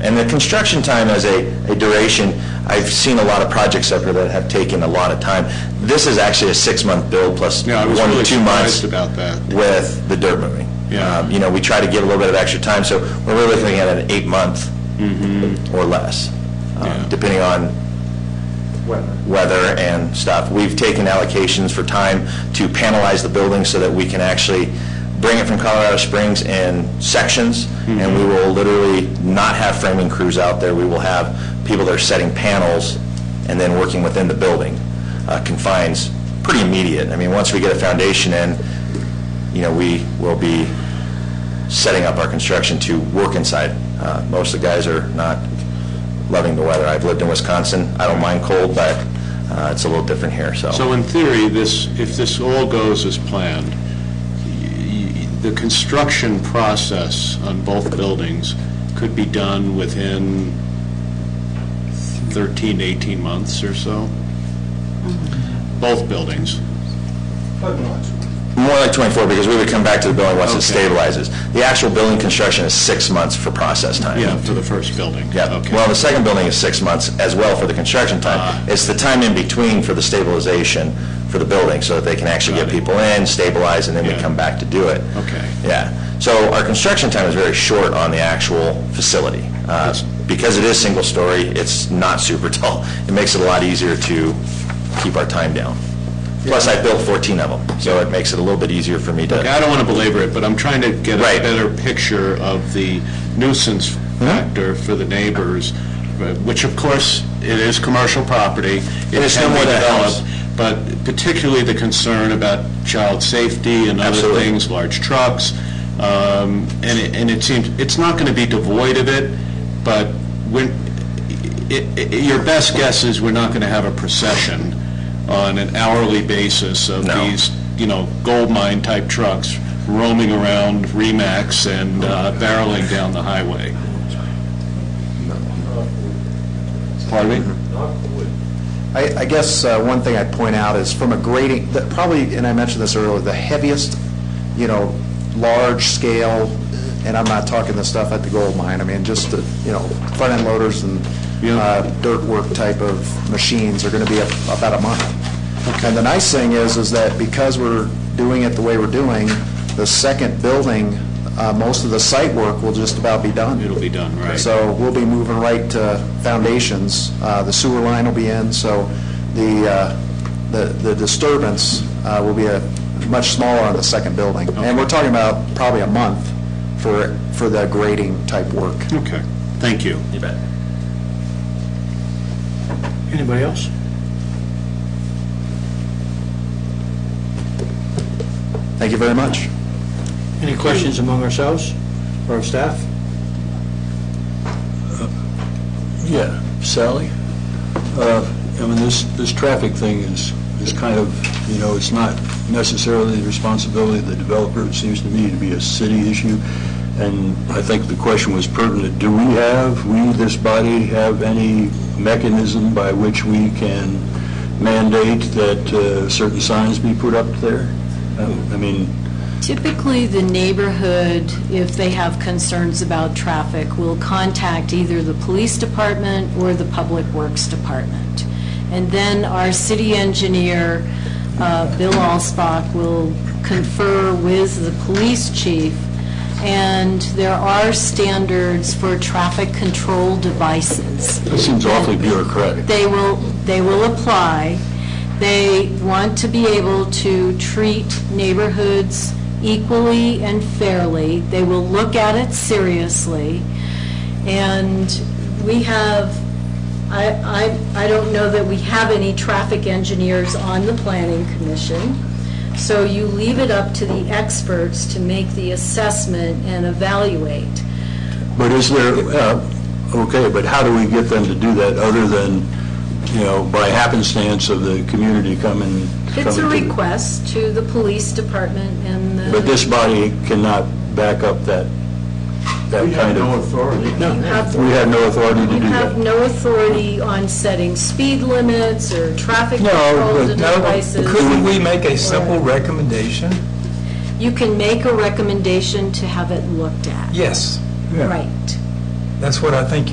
And the construction time as a, a duration, I've seen a lot of projects up here that have taken a lot of time. This is actually a six-month build plus Yeah, I was one to really two months surprised about that. with the dirt moving. Yeah. Um, You know, we try to give a little bit of extra time, so we're really looking at an eight-month Mm-hmm. or less, um, Yeah. depending on weather and stuff. We've taken allocations for time to panelize the building so that we can actually bring it from Colorado Springs in sections, and we will literally not have framing crews out there. We will have people that are setting panels and then working within the building. Uh, Confines, pretty immediate. I mean, once we get a foundation in, you know, we will be setting up our construction to work inside. Uh, Most of the guys are not loving the weather. I've lived in Wisconsin, I don't mind cold, but uh, it's a little different here, so. So in theory, this, if this all goes as planned, y- y- the construction process on both buildings could be done within 13, 18 months or so? Mm-hmm. Both buildings? More like 24, because we would come back to the building once it Okay. stabilizes. The actual building construction is six months for process time. Yeah, for the first building? Yeah. Okay. Well, the second building is six months as well for the construction time. Ah. It's the time in between for the stabilization for the building, so that they can actually get Got it. people in, stabilize, and then we Yeah. come back to do it. Okay. Yeah. So our construction time is very short on the actual facility. Uh, Yes. Because it is single-story, it's not super tall. It makes it a lot easier to keep our time down. Plus, I built 14 of them, so it makes it a little bit easier for me to... Okay, I don't want to belabor it, but I'm trying to get a Right. Hmm? better picture of the nuisance factor for the neighbors, but- which of course, it is commercial property. It it's no can be more than a developed, house. But particularly the concern about child safety and other Absolutely. things, large trucks. um, And it, and it seems, it's not going to be devoid of it, but when, i- i- your best guess is we're not going to have a procession on an hourly basis of No. these, you know, gold mine type trucks roaming around Remax and uh, barreling down the highway. Pardon me? I, I guess uh, one thing I'd point out is from a grading, that probably, and I mentioned this earlier, the heaviest, you know, large scale, and I'm not talking the stuff at the gold mine, I mean, just the, you know, front end loaders and Yeah. uh, dirt work type of machines are going to be a- about a month. And the nice thing is, is that because we're doing it the way we're doing, the second building, uh, most of the site work will just about be done. It'll be done, right. So we'll be moving right to foundations. Uh, The sewer line will be in, so the, uh, the the disturbance uh, will be a much smaller on the second building. And we're talking about probably a month for, for the grading type work. Okay, thank you. You bet. Anybody else? Thank you very much. Any questions among ourselves or our staff? Uh, Yeah, Sally? Uh, I mean, this, this traffic thing is, is kind of, you know, it's not necessarily the responsibility of the developer, it seems to me to be a city issue, and I think the question was pertinent, do we have, we, this body, have any mechanism by which we can mandate that uh, certain signs be put up there? Um, I mean, Typically, the neighborhood, if they have concerns about traffic, will contact either the police department or the public works department. And then our city engineer, uh, Bill Alsbach, will confer with the police chief, and there are standards for traffic control devices. it seems awfully bureaucratic. They will, they will apply. They want to be able to treat neighborhoods equally and fairly. They will look at it seriously. And we have, I, I, I don't know that we have any traffic engineers on the planning commission. So you leave it up to the experts to make the assessment and evaluate. But is there, uh, okay, but how do we get them to do that other than, you know, by happenstance of the community coming? It's a coming to- request to the police department and the... But this body cannot back up that, that kind of, authority. You have- we have no authority to do You have that. no authority on setting speed limits or traffic No, control but- No, devices. Couldn't we make a simple recommendation? You can make a recommendation to have it looked at. Yes, Right. that's what I think